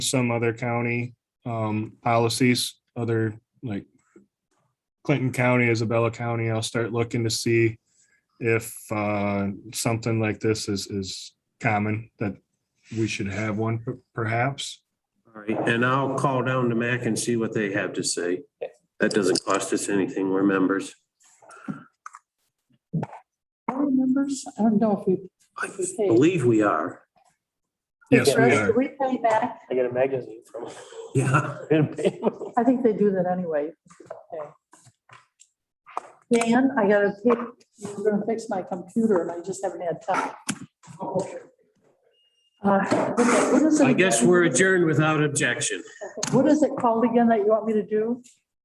some other county um policies, other like Clinton County, Isabella County, I'll start looking to see if uh something like this is is common that we should have one per- perhaps. All right, and I'll call down to Mac and see what they have to say. That doesn't cost us anything, we're members. board members? I don't know if we. I believe we are. Yes, we Do are. we pay back? I get a magazine from. Yeah. I think they do that anyway. Okay. Dan, I gotta pick, you're gonna fix my computer and I just haven't had time. Uh, what is it- I guess we're adjourned without objection. What is it called again that you want me to do?